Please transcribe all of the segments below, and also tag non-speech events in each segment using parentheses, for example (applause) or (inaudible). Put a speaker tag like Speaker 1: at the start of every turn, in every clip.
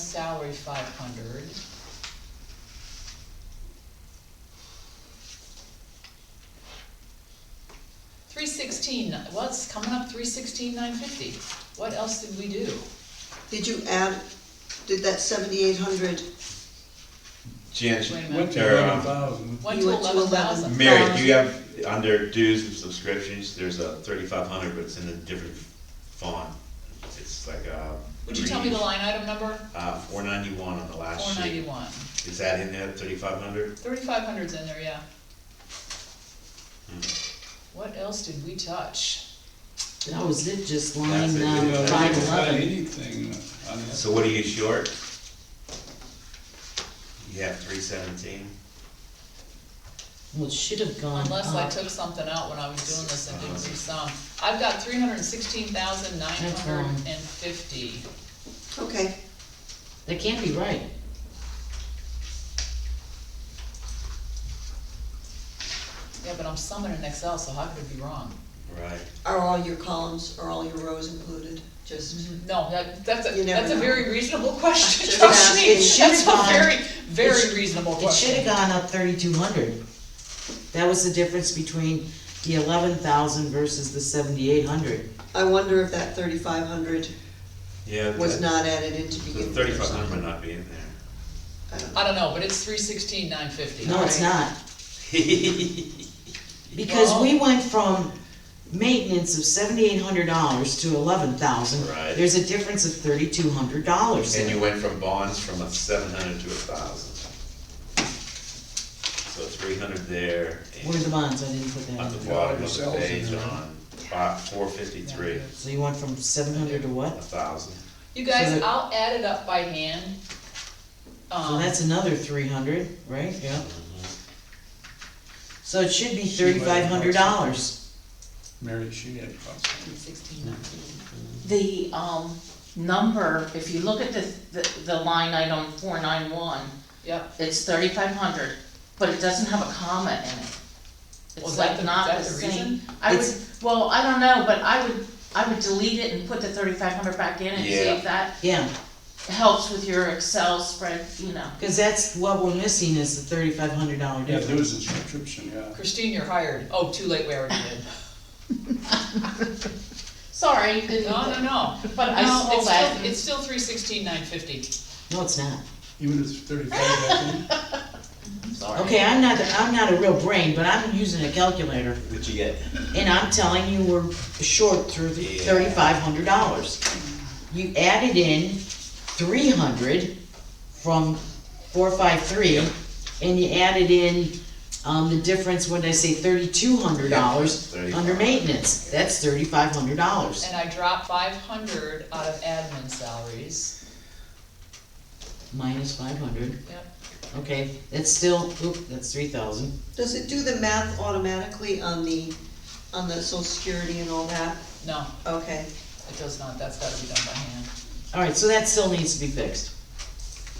Speaker 1: salary five hundred. Three sixteen, well, it's coming up three sixteen, nine fifty. What else did we do?
Speaker 2: Did you add, did that seventy-eight hundred,
Speaker 3: Jan,
Speaker 1: Wait a
Speaker 4: Went
Speaker 1: minute.
Speaker 4: to
Speaker 3: Or, um,
Speaker 4: eleven thousand.
Speaker 1: One
Speaker 2: You
Speaker 1: to
Speaker 2: went to
Speaker 1: eleven thousand.
Speaker 3: Mary, do you have, under dues and subscriptions, there's a thirty-five hundred, but it's in a different font. It's like, uh.
Speaker 1: Would you tell me the
Speaker 3: green,
Speaker 1: line item number?
Speaker 3: Uh, four ninety-one on the last sheet.
Speaker 1: Four ninety-one.
Speaker 3: Is that in there, thirty-five hundred?
Speaker 1: Thirty-five hundred's in there, yeah. What else did we touch?
Speaker 5: That was it, just
Speaker 3: That's
Speaker 5: line
Speaker 3: it.
Speaker 4: Yeah,
Speaker 5: um,
Speaker 4: they
Speaker 5: five
Speaker 4: didn't buy
Speaker 5: eleven.
Speaker 4: Anything uh, on that.
Speaker 3: So what are you short? You have three seventeen?
Speaker 5: Well, it should have gone
Speaker 1: Unless I
Speaker 5: up.
Speaker 1: took something out when I was doing this and didn't do some. I've got three hundred and sixteen thousand nine hundred and fifty.
Speaker 2: okay,
Speaker 5: That can't be right.
Speaker 1: Yeah, but I'm summing in Excel, so how could it be wrong?
Speaker 3: Right.
Speaker 2: are all your columns, are all your rows included, just,
Speaker 1: No, that, that's a,
Speaker 2: You never
Speaker 1: that's a
Speaker 2: know.
Speaker 1: very reasonable question,
Speaker 2: Just
Speaker 1: trust me.
Speaker 5: asking. It should've
Speaker 1: That's
Speaker 5: gone-
Speaker 1: a very, very
Speaker 5: it sh-
Speaker 1: reasonable
Speaker 5: It should
Speaker 1: question.
Speaker 5: have gone up thirty-two hundred. That was the difference between the eleven thousand versus the seventy-eight hundred.
Speaker 2: I wonder if that thirty-five hundred
Speaker 3: Yeah.
Speaker 2: was not added in to begin with. or
Speaker 3: Thirty-five hundred might
Speaker 2: something.
Speaker 3: not be in there.
Speaker 2: I don't know.
Speaker 1: I don't know, but it's three sixteen nine fifty.
Speaker 5: No, it's
Speaker 2: Right.
Speaker 5: not, because we went from maintenance of seventy-eight hundred dollars to eleven thousand.
Speaker 3: Right.
Speaker 5: There's a difference of thirty-two hundred dollars
Speaker 3: And you
Speaker 5: there.
Speaker 3: went from bonds from a seven hundred to a thousand. So three hundred there. and-
Speaker 5: Where are the bonds? I didn't put
Speaker 3: At
Speaker 5: that in.
Speaker 3: the bottom of the
Speaker 4: Yourself
Speaker 3: page
Speaker 4: in there.
Speaker 3: on five, four fifty-three,
Speaker 5: So you went from seven hundred to
Speaker 3: a
Speaker 5: what?
Speaker 3: thousand.
Speaker 1: You guys,
Speaker 5: So-
Speaker 1: I'll add it up by hand.
Speaker 5: So
Speaker 1: Um,
Speaker 5: that's another three hundred, right? Yeah. So it should be
Speaker 4: She might
Speaker 5: thirty-five
Speaker 4: have
Speaker 5: hundred dollars.
Speaker 4: Mary, she had cost.
Speaker 6: Sixteen nineteen. The, um, number, if you look at the, the, the line item four nine one,
Speaker 1: Yep,
Speaker 6: it's thirty-five hundred, but it doesn't have a comma in it.
Speaker 1: Well, is
Speaker 6: It's
Speaker 1: that
Speaker 6: like
Speaker 1: the-
Speaker 6: not the
Speaker 1: that's the
Speaker 6: same.
Speaker 1: reason?
Speaker 6: I would,
Speaker 5: It's-
Speaker 6: well, I don't know, but I would, I would delete it and put the thirty-five hundred back in and see
Speaker 3: Yeah.
Speaker 6: if that
Speaker 5: Yeah,
Speaker 6: helps with your Excel spread, you know.
Speaker 5: cause that's what we're missing is the thirty-five hundred dollar
Speaker 4: Yeah, there
Speaker 5: difference.
Speaker 4: was a subscription, yeah.
Speaker 1: Christine, you're hired. Oh, too late, we already
Speaker 5: (laughs)
Speaker 1: did.
Speaker 6: Sorry, you didn't.
Speaker 1: No, no, no.
Speaker 6: But I
Speaker 1: No,
Speaker 6: still
Speaker 1: it's
Speaker 6: laugh.
Speaker 1: still, it's still three sixteen nine fifty.
Speaker 5: No, it's not.
Speaker 4: Even if it's thirty-five, I think,
Speaker 5: Okay, I'm not, I'm not a real brain, but I'm using a calculator,
Speaker 3: What'd you get?
Speaker 5: and I'm telling you, we're short through
Speaker 3: Yeah.
Speaker 5: thirty-five hundred dollars. You added in three hundred from four five three, and you added in, um, the difference, what did I say, thirty-two hundred dollars
Speaker 3: Yeah,
Speaker 5: under
Speaker 3: 35.
Speaker 5: maintenance, that's thirty-five hundred dollars.
Speaker 1: And I dropped five hundred out of admin salaries.
Speaker 5: Minus five hundred,
Speaker 1: Yep.
Speaker 5: okay, that's still, oop, that's three thousand.
Speaker 2: Does it do the math automatically on the, on the social security and all that?
Speaker 1: No,
Speaker 2: Okay,
Speaker 1: it does not, that's gotta be done by hand.
Speaker 5: Alright, so that still needs to be fixed.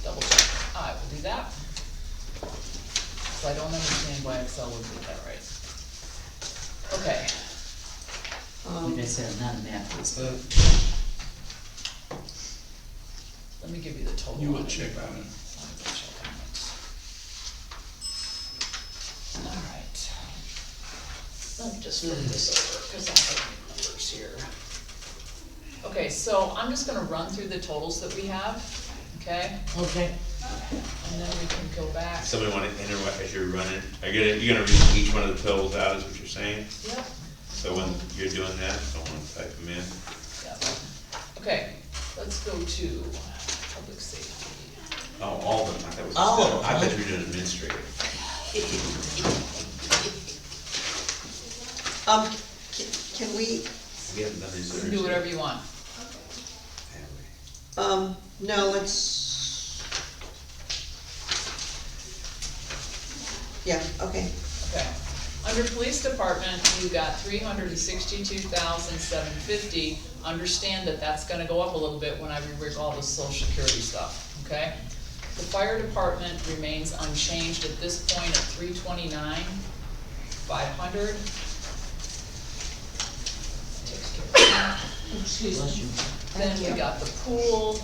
Speaker 1: Double check, I will do that. So I don't understand why Excel would do that right. Okay,
Speaker 2: um,
Speaker 5: Like I said, I'm not a math expert.
Speaker 4: so
Speaker 1: let me give you the total.
Speaker 4: you
Speaker 1: on
Speaker 4: will
Speaker 1: it.
Speaker 4: check on it.
Speaker 1: Let me go check on it. Alright. Let me just flip this over, cause I have the numbers here. Okay, so I'm just gonna run through the totals that we have, okay?
Speaker 5: Okay.
Speaker 1: And then we can go back.
Speaker 3: Somebody wanna interrupt as you're running, are you gonna, you're gonna read each one of the totals out, is what you're saying?
Speaker 1: Yep,
Speaker 3: So when you're doing that, someone type them in.
Speaker 1: yep. Okay, let's go to public safety.
Speaker 3: Oh, all of them, I thought it was.
Speaker 5: All of
Speaker 3: still- I
Speaker 5: them.
Speaker 3: thought you were doing administrative.
Speaker 2: um, can, can we,
Speaker 3: We haven't done these.
Speaker 1: You can do whatever you want.
Speaker 2: um, no, let's. Yeah, okay,
Speaker 1: Okay. Under police department, you got three hundred and sixty-two thousand, seven fifty. Understand that that's gonna go up a little bit when I rework all the social security stuff, okay? The fire department remains unchanged at this point at three twenty-nine, five hundred. Takes care of that.
Speaker 6: Excuse me.
Speaker 5: Bless you.
Speaker 1: Then we got the pool,